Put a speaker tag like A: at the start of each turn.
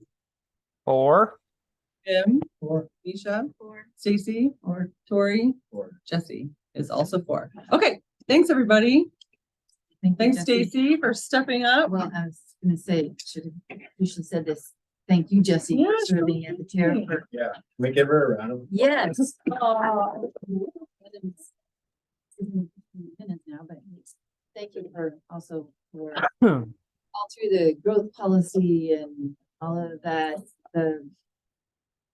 A: Four.
B: Jim. Or. Misha. Or. Stacy. Or. Tori. Or. Jesse is also four. Okay, thanks, everybody.
C: Thank you,
B: Thanks,
C: Jesse.
B: Stacy, oh, for stepping up.
C: Well, I was gonna say, should have, you should have said this. Thank you, Jesse,
B: Yeah,
C: for serving at the chair for,
D: Yeah, can we give her a round of.
C: yes. Oh. Minutes now, but thank you for also for all through the growth policy and all of that, the